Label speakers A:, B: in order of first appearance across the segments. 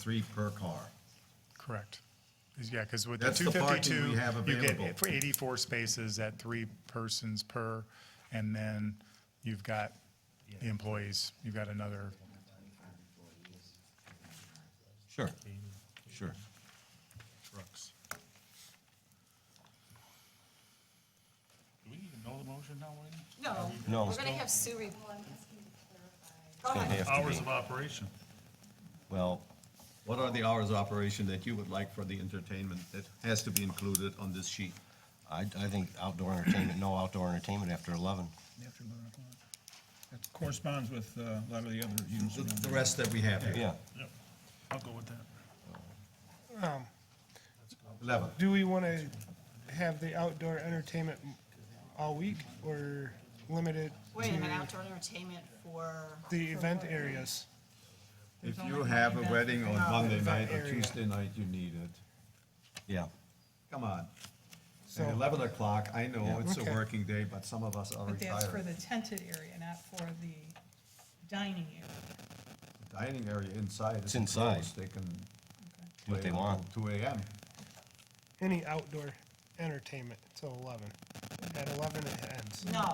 A: three per car.
B: Correct. 'Cause, Yeah, because with the
A: That's the parking
B: 252,
A: we have
B: you get
A: available.
B: for 84 spaces at three persons per, and then you've got the employees, you've got another,
A: Sure, sure.
C: trucks. Do we need to know the motion now, Wayne?
D: No.
A: No.
D: We're gonna have Sue re-
A: It's gonna have to
C: Hours
A: be.
C: of operation.
A: Well, what are the hours of operation that you would like for the entertainment that has to be included on this sheet?
E: I, I think outdoor entertainment, no outdoor entertainment after eleven.
F: after 11 o'clock. That corresponds with uh, a lot of the other units.
A: The,
F: around
A: the
F: here.
A: rest that we have here,
E: Yeah.
C: Yep, I'll go with that.
A: eleven.
G: Do we want to have the outdoor entertainment all week or limit it
D: wait a minute, outdoor entertainment for,
G: to the event areas?
A: If you have a wedding on Monday night or
G: area.
A: Tuesday night, you need it.
E: Yeah.
A: Come on.
G: So-
A: At eleven o'clock, I know it's a
G: Okay.
A: working day, but some of us are
H: But that's for
A: retired.
H: the tented area, not for the dining area.
A: Dining area inside is
E: It's inside.
A: enclosed, they can.
E: Do what
A: play
E: they
A: until
E: want.
A: Two AM.
G: Any outdoor entertainment till eleven. At eleven it ends.
D: no,
E: No.
D: no, no,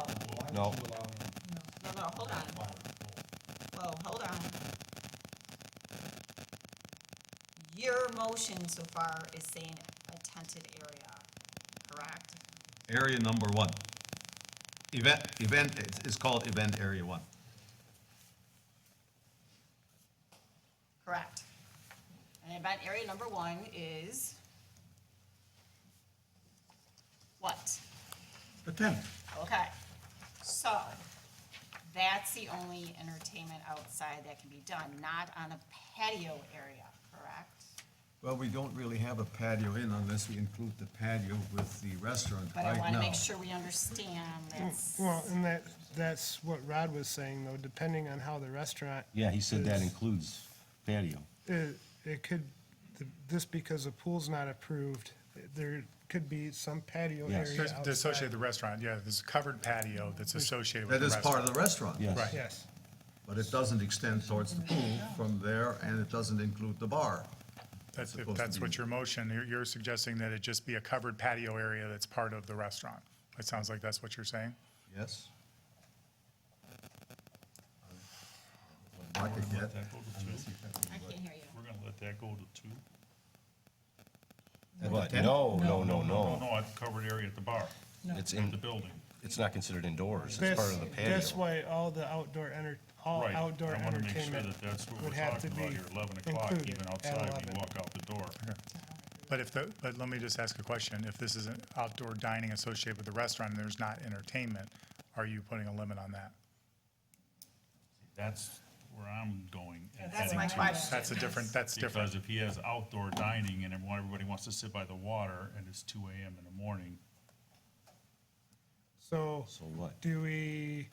D: hold on. Whoa, hold on. Your motion so far is saying a tented area, correct?
A: Area number one. Event, event, it's- it's called event area one.
D: Correct. And event area number one is what?
A: The tent.
D: Okay, so that's the only entertainment outside that can be done, not on a patio area, correct?
A: Well, we don't really have a patio in unless we include the patio with the restaurant
D: But I
A: right
D: wanna
A: now.
D: make sure we understand that's,
G: Well, and that, that's what Rod was saying though, depending on how the restaurant.
E: Yeah, he said that
G: is,
E: includes patio.
G: It, it could, th- just because the pool's not approved, there could be some patio
E: Yes.
G: area
B: There's-
G: outside.
B: associated with the restaurant, yeah, there's a covered patio that's associated with
A: That
B: the
A: is
B: restaurant.
A: part of the restaurant.
E: Yes.
B: Right.
G: Yes.
A: But it doesn't extend towards the pool from there, and it doesn't include the bar.
B: That's, if
A: supposed to
B: that's
A: be-
B: what your motion, you're, you're suggesting that it just be a covered patio area that's part of the restaurant. It sounds like that's what you're saying.
A: Yes? I
C: Let
A: could get,
C: that go to two.
D: I can't hear you.
C: We're gonna let that go to two.
E: What? No, no, no,
C: Oh, No,
E: no.
C: no, I've covered area at the bar,
E: It's
C: at
E: in,
C: the building.
E: it's not considered indoors. It's
G: That's-
E: part of the
G: That's
E: patio.
G: why all the outdoor enter, all
C: Right.
G: outdoor
C: I wanna make sure
G: entertainment
C: that that's what we're
G: would have to
C: talking
G: be
C: about here, eleven o'clock,
G: included
C: even
G: at
C: outside, when
G: 11.
C: you walk out the door.
B: But if the, but let me just ask a question. If this is an outdoor dining associated with the restaurant and there's not entertainment, are you putting a limit on that?
C: That's where I'm going. and
D: That's
C: heading
D: my
C: to.
D: question.
B: That's a different, that's different.
C: Because if he has outdoor dining and everyone, everybody wants to sit by the water and it's two AM in the morning,
G: So,
E: So what?
G: do we,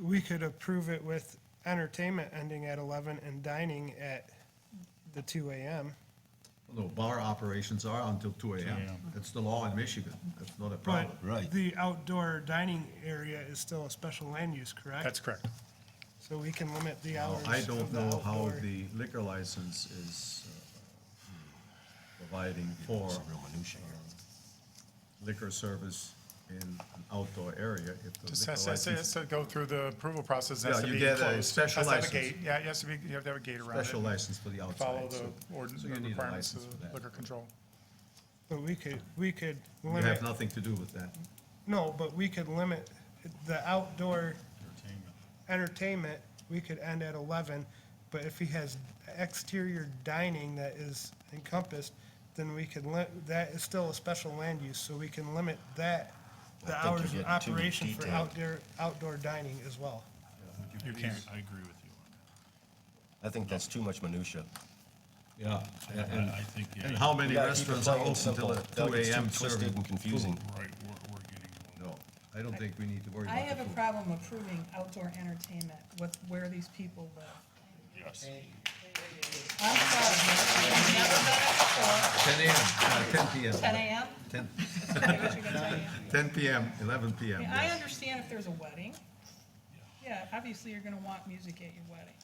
G: we could approve it with entertainment ending at eleven and dining at the two
C: Oh,
G: AM.
A: no, bar operations are until two AM.
C: 2
A: That's the law in Michigan. That's not a
G: But
A: problem.
E: Right.
G: the outdoor dining area is still a special land use, correct?
B: That's correct.
G: So we can limit the hours
A: I
G: of
A: don't
G: the
A: know how
G: outdoor.
A: the liquor license is uh, providing for uh,
E: It's a real minutia here.
A: liquor service in an outdoor area. if the
B: Just
A: liquor
B: has, has-
A: license-
B: has to go through the approval process.
A: Yeah,
B: Has to
A: you
B: be
A: get a
B: enclosed.
A: special
B: Has to have a
A: license.
B: gate. Yeah, it has to be, you have to have a gate around it.
A: Special license for the outside.
B: Follow
A: so-
B: the ordinance,
A: so you need a
B: requirements
A: license for
B: of
A: that.
B: liquor control.
G: But we could, we could
A: You have
G: limit,
A: nothing to do with that.
G: no, but we could limit the outdoor
C: entertainment.
G: entertainment, we could end at eleven, but if he has exterior dining that is encompassed, then we can li- that is still a special land use, so we can limit that, the
E: I think
G: hours
E: you're
G: of
E: getting too
G: operation for
E: detailed.
G: outdoor, outdoor dining as well.
C: You
B: You can't.
C: can't, I agree with you on that.
E: I think that's too much minutia.
A: Yeah.
C: And I think, yeah,
A: And how many
E: You gotta keep it
A: restaurants
E: plain
A: are
E: and
A: open till
E: simple.
A: at
E: That
A: two
E: gets too
A: AM
E: twisted
A: serving?
E: And confusing.
C: right, we're, we're getting. a little-
A: No, I don't think we need to worry about
H: I
A: the
H: have a
A: food.
H: problem approving outdoor entertainment with where these people live.
C: Yes.
H: I'm sorry, I've never done
A: Ten AM, uh, ten PM.
H: it before. Ten AM?
A: Ten,
H: Is that what you're gonna tell me?
A: ten PM, eleven PM,
H: I mean, I
A: yes.
H: understand if there's a wedding. Yeah, obviously you're gonna want music at your wedding.